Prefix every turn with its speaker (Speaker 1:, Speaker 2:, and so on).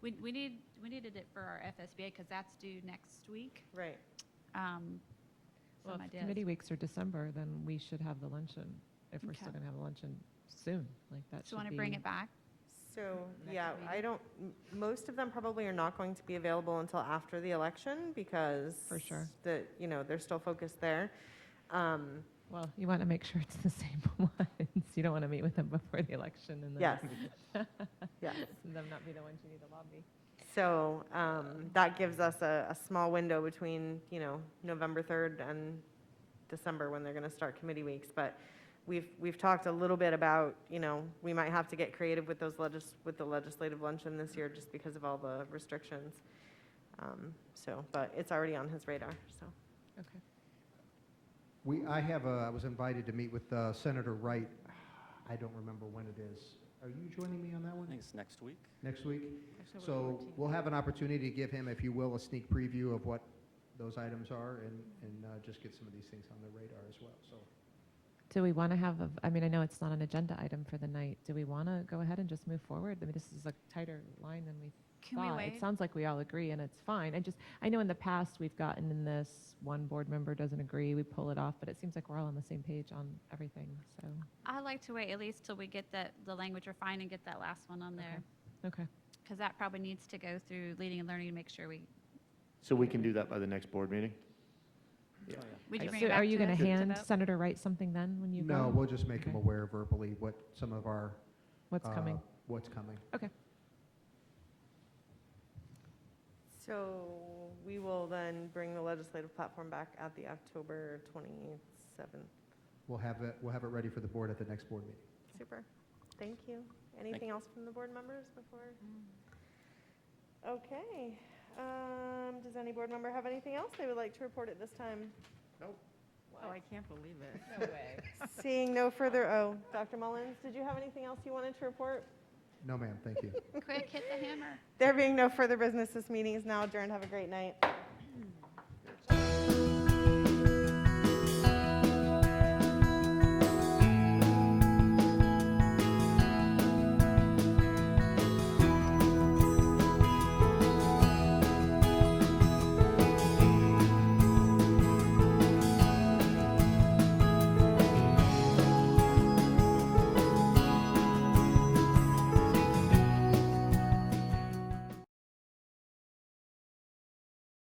Speaker 1: We, we need, we needed it for our FSBA because that's due next week.
Speaker 2: Right.
Speaker 1: Um,
Speaker 3: Well,
Speaker 1: some
Speaker 3: if
Speaker 1: ideas.
Speaker 3: committee weeks are December, then we should have the luncheon, if we're still
Speaker 1: Okay.
Speaker 3: going to have a luncheon soon, like that
Speaker 1: So
Speaker 3: should
Speaker 1: want to
Speaker 3: be-
Speaker 1: bring it back?
Speaker 2: So,
Speaker 1: Next
Speaker 2: yeah,
Speaker 1: meeting.
Speaker 2: I don't, m- most of them probably are not going to be available until after the election because.
Speaker 3: For sure.
Speaker 2: The, you know, they're still focused there. Um,
Speaker 3: Well, you want to make sure it's the same ones. You don't want to meet with them before the election and then.
Speaker 2: Yes. Yes.
Speaker 3: and Them not be the ones you need to lobby.
Speaker 2: So um, that gives us a, a small window between, you know, November 3rd and December when they're going to start committee weeks. But we've, we've talked a little bit about, you know, we might have to get creative with those legis, with the legislative luncheon this year just because of all the restrictions. Um, So, but it's already on his radar, so.
Speaker 3: Okay.
Speaker 4: We, I have a, I was invited to meet with uh, Senator Wright. I don't remember when it is. Are you joining me on that
Speaker 5: I
Speaker 4: one
Speaker 5: think it's next week.
Speaker 4: next week? So we'll have an opportunity to give him, if you will, a sneak preview of what those items are and, and uh, just get some of these things on the radar as well, so.
Speaker 3: Do we want to have, a I mean, I know it's not an agenda item for the night. Do we want to go ahead and just move forward? I mean, this is a tighter line than we
Speaker 1: Can we
Speaker 3: thought.
Speaker 1: wait?
Speaker 3: It sounds like we all agree, and it's fine. I just, I know in the past, we've gotten in this, one board member doesn't agree, we pull it off, but it seems like we're all on the same page on everything, so,
Speaker 1: I like to wait at least till we get that, the language refined and get that last one on there.
Speaker 3: okay.
Speaker 1: Because that probably needs to go through leading and learning to make sure we,
Speaker 6: So we can do that by the next board meeting? Yeah.
Speaker 5: Oh, yeah.
Speaker 1: would you bring
Speaker 3: So
Speaker 1: it back
Speaker 3: are you
Speaker 1: to
Speaker 3: going to
Speaker 1: the- to
Speaker 3: hand
Speaker 1: vote?
Speaker 3: Senator Wright something then when you go?
Speaker 4: No, we'll just make him
Speaker 3: Okay.
Speaker 4: aware verbally what some of our.
Speaker 3: What's
Speaker 4: uh,
Speaker 3: coming?
Speaker 4: What's coming.
Speaker 2: So we will then bring the legislative platform back at the October 27th.
Speaker 4: We'll have it, we'll have it ready for the board at the next board meeting.
Speaker 2: Super. Thank you. Anything else from the board members before?
Speaker 1: Mm.
Speaker 2: Okay. Um, Does any board member have anything else they would like to report at this time?
Speaker 4: Nope.
Speaker 2: Wow.
Speaker 7: Oh, I can't believe it.
Speaker 2: Seeing no further, oh, Dr. Mullins, did you have anything else you wanted to report?
Speaker 4: No, ma'am, thank you.
Speaker 1: Quick, hit the hammer.
Speaker 2: There being no further business, this meeting is now adjourned. Have a great night.